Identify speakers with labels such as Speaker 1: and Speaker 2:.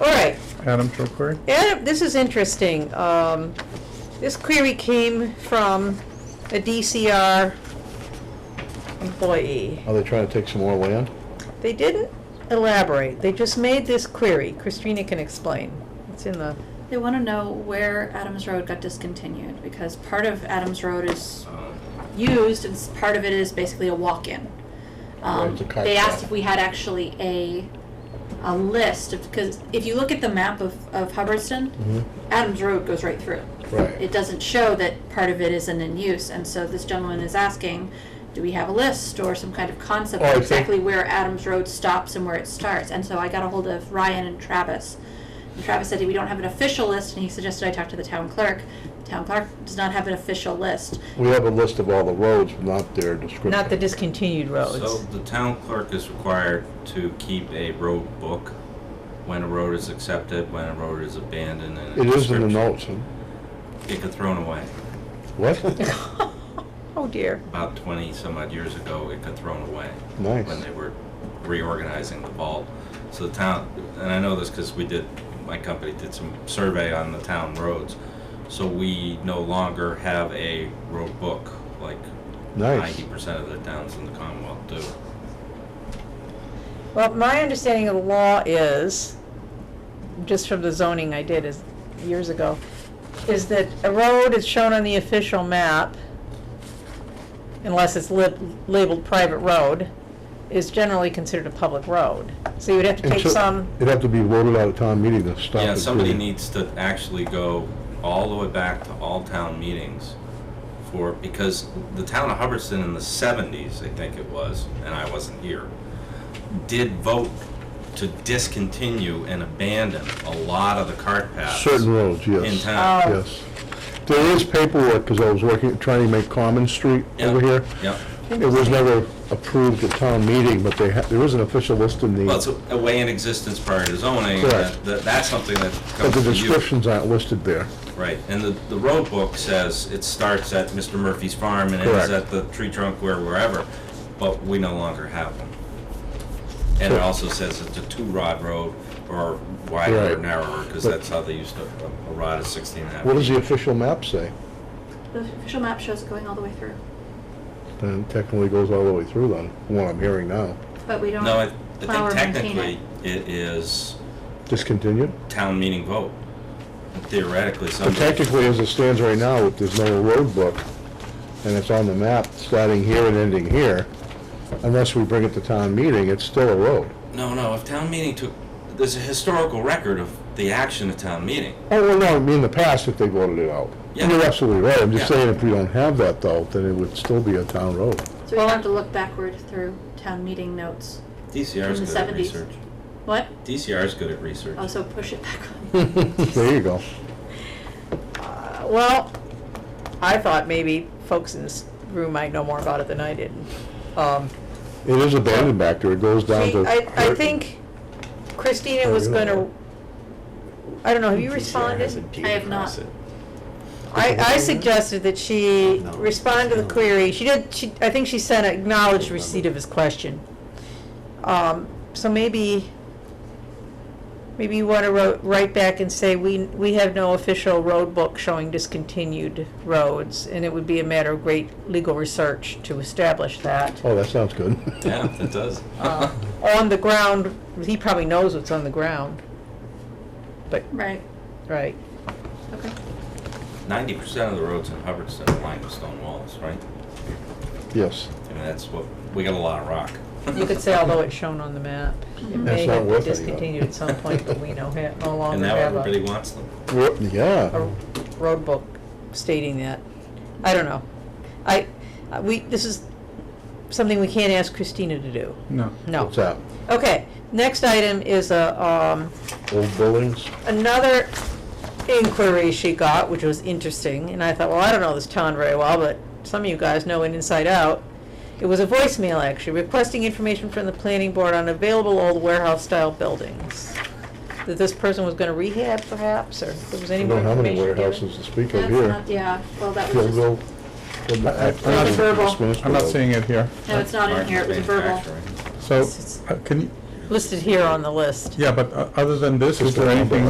Speaker 1: All right,
Speaker 2: Adam Troquery?
Speaker 1: Adam, this is interesting. Um, This query came from a DCR employee.
Speaker 3: Are they trying to take some more land?
Speaker 1: They didn't elaborate, they just made this query. Christina can explain. It's in the,
Speaker 4: They want to know where Adams Road got discontinued because part of Adams Road is used and s- part of it is basically a walk-in.
Speaker 3: Right,
Speaker 4: Um,
Speaker 3: it's a kite
Speaker 4: they asked
Speaker 3: track.
Speaker 4: if we had actually a a list because if you look at the map of, of Hubbardston,
Speaker 3: Mhm.
Speaker 4: Adams Road goes right through.
Speaker 3: Right.
Speaker 4: It doesn't show that part of it isn't in use, and so this gentleman is asking, do we have a list or some kind of concept
Speaker 3: Oh, I
Speaker 4: of
Speaker 3: think-
Speaker 4: exactly where Adams Road stops and where it starts? And so I got a hold of Ryan and Travis. And Travis said we don't have an official list, and he suggested I talk to the town clerk. The town clerk does not have an official list.
Speaker 3: We have a list of all the roads, but not their description.
Speaker 1: not the discontinued
Speaker 5: So
Speaker 1: roads.
Speaker 5: the town clerk is required to keep a road book, when a road is accepted, when a road is abandoned, and a
Speaker 3: It is in the
Speaker 5: description.
Speaker 3: notes, huh?
Speaker 5: It got thrown away.
Speaker 3: What?
Speaker 1: Oh dear.
Speaker 5: About twenty some odd years ago, it got thrown away.
Speaker 3: Nice.
Speaker 5: When they were reorganizing the vault. So the town, and I know this because we did, my company did some survey on the town roads. So we no longer have a road book, like
Speaker 3: Nice.
Speaker 5: ninety percent of the towns in the Commonwealth do.
Speaker 1: Well, my understanding of the law is, just from the zoning I did is, years ago, is that a road is shown on the official map, unless it's lib- labeled private road, is generally considered a public road. So you would have to
Speaker 3: And
Speaker 1: take
Speaker 3: so-
Speaker 1: some,
Speaker 3: It'd have to be voted out of town meeting to stop it.
Speaker 5: Yeah, somebody
Speaker 3: being-
Speaker 5: needs to actually go all the way back to all town meetings for, because the town of Hubbardston in the seventies, I think it was, and I wasn't here, did vote to discontinue and abandon a lot of the cart paths.
Speaker 3: Certain roads, yes.
Speaker 5: In town.
Speaker 1: Oh.
Speaker 3: Yes. There is paperwork, because I was working, trying to make Common Street
Speaker 5: Yeah,
Speaker 3: over here.
Speaker 5: Yep.
Speaker 3: It was never approved at town meeting, but they, ha- there is an official list in
Speaker 5: Well, it's
Speaker 3: the,
Speaker 5: a way in existence prior to zoning.
Speaker 3: Correct.
Speaker 5: and that- That's something that
Speaker 3: but
Speaker 5: comes
Speaker 3: the
Speaker 5: to you.
Speaker 3: descriptions aren't listed there.
Speaker 5: Right, and the, the road book says it starts at Mr. Murphy's farm and ends
Speaker 3: Correct.
Speaker 5: at the tree trunk where, wherever, but we no longer have them. And it
Speaker 3: Sure.
Speaker 5: also says it's a two-rod road, or wider or
Speaker 3: Right.
Speaker 5: narrower, because
Speaker 3: But-
Speaker 5: that's how they used to, a- a rod is sixteen and a half.
Speaker 3: What does the official map say?
Speaker 4: The official map shows it going all the way through,
Speaker 3: Then technically goes all the way through then, from what I'm hearing now.
Speaker 4: but we don't
Speaker 5: No, I,
Speaker 4: plow
Speaker 5: I
Speaker 4: or
Speaker 5: think
Speaker 4: maintain it.
Speaker 5: technically, it is
Speaker 3: Discontinued?
Speaker 5: town meeting vote. Theoretically,
Speaker 3: But
Speaker 5: somebody,
Speaker 3: technically, as it stands right now, if there's no road book, and it's on the map, starting here and ending here, unless we bring it to town meeting, it's still a road.
Speaker 5: no, no, if town meeting took, there's a historical record of the action of town meeting.
Speaker 3: Oh, well, no, I mean, in the past, if they voted it out.
Speaker 5: Yeah.
Speaker 3: You're absolutely right, I'm just
Speaker 5: Yeah.
Speaker 3: saying, if we don't have that, though, then it would still be a town road.
Speaker 4: So we have to look backward through town meeting notes.
Speaker 5: DCR is
Speaker 4: From the Oh,
Speaker 5: good at
Speaker 4: 70s.
Speaker 5: research.
Speaker 4: What?
Speaker 5: DCR is good at research.
Speaker 4: Also push it back on.
Speaker 3: There you go.
Speaker 1: uh, well, I thought maybe folks in this room might know more about it than I did. Um,
Speaker 3: It is abandoned back there, it goes down
Speaker 1: See,
Speaker 3: to.
Speaker 1: I, I think Christina was
Speaker 3: Oh, yeah.
Speaker 1: gonna, I don't know, have you
Speaker 6: has a
Speaker 1: responded?
Speaker 6: deed
Speaker 4: I have
Speaker 6: across
Speaker 4: not.
Speaker 6: it.
Speaker 1: I, I suggested that she
Speaker 6: No.
Speaker 1: respond to the
Speaker 6: No.
Speaker 1: query, she did, she, I think she sent an acknowledged receipt of his question. Um, so maybe, maybe you wanna ro- write back and say, we, we have no official road book showing discontinued roads, and it would be a matter of great legal research to establish that.
Speaker 3: Oh, that sounds good.
Speaker 5: Yeah, that does.
Speaker 4: Uh-huh.
Speaker 1: uh, on the ground, he probably knows what's on the ground. But,
Speaker 4: Right,
Speaker 1: right,
Speaker 4: okay.
Speaker 5: Ninety percent of the roads in Hubbardston are lined with stone walls, right?
Speaker 3: Yes,
Speaker 5: I mean, that's what, we got a lot of rock.
Speaker 1: you could say although it's shown on the map, it may
Speaker 3: That's not
Speaker 1: have been
Speaker 3: worth it, you know.
Speaker 1: discontinued at some point, but we no, ha- no
Speaker 5: And
Speaker 1: longer
Speaker 5: now
Speaker 1: have
Speaker 5: everybody
Speaker 1: a,
Speaker 5: wants them.
Speaker 3: We're-
Speaker 1: a
Speaker 3: yeah,
Speaker 1: road book stating that. I don't know. I, uh, we, this is something we can't ask Christina to do.
Speaker 2: No.
Speaker 1: No.
Speaker 3: what's that,
Speaker 1: Okay, next item is a, um,
Speaker 3: old buildings?
Speaker 1: another inquiry she got, which was interesting, and I thought, well, I don't know this town very well, but some of you guys know it inside out. It was a voicemail actually, requesting information from the planning board on available old warehouse-style buildings. That this person was gonna rehab perhaps, or if there was
Speaker 3: I
Speaker 1: any
Speaker 3: don't
Speaker 1: more
Speaker 3: know how many
Speaker 1: information given?
Speaker 3: warehouses to speak of
Speaker 4: That's
Speaker 3: here.
Speaker 4: not, yeah, well, that was just,
Speaker 3: Gilville.
Speaker 4: no,
Speaker 2: I- I'm not-
Speaker 4: verbal.
Speaker 2: I'm not seeing it here.
Speaker 4: it's not in
Speaker 5: Martin's
Speaker 4: here, it was a verbal.
Speaker 5: Manufacturing.
Speaker 2: So, uh, can you,
Speaker 1: listed here on the list.
Speaker 2: Yeah, but uh, other than this, is there anything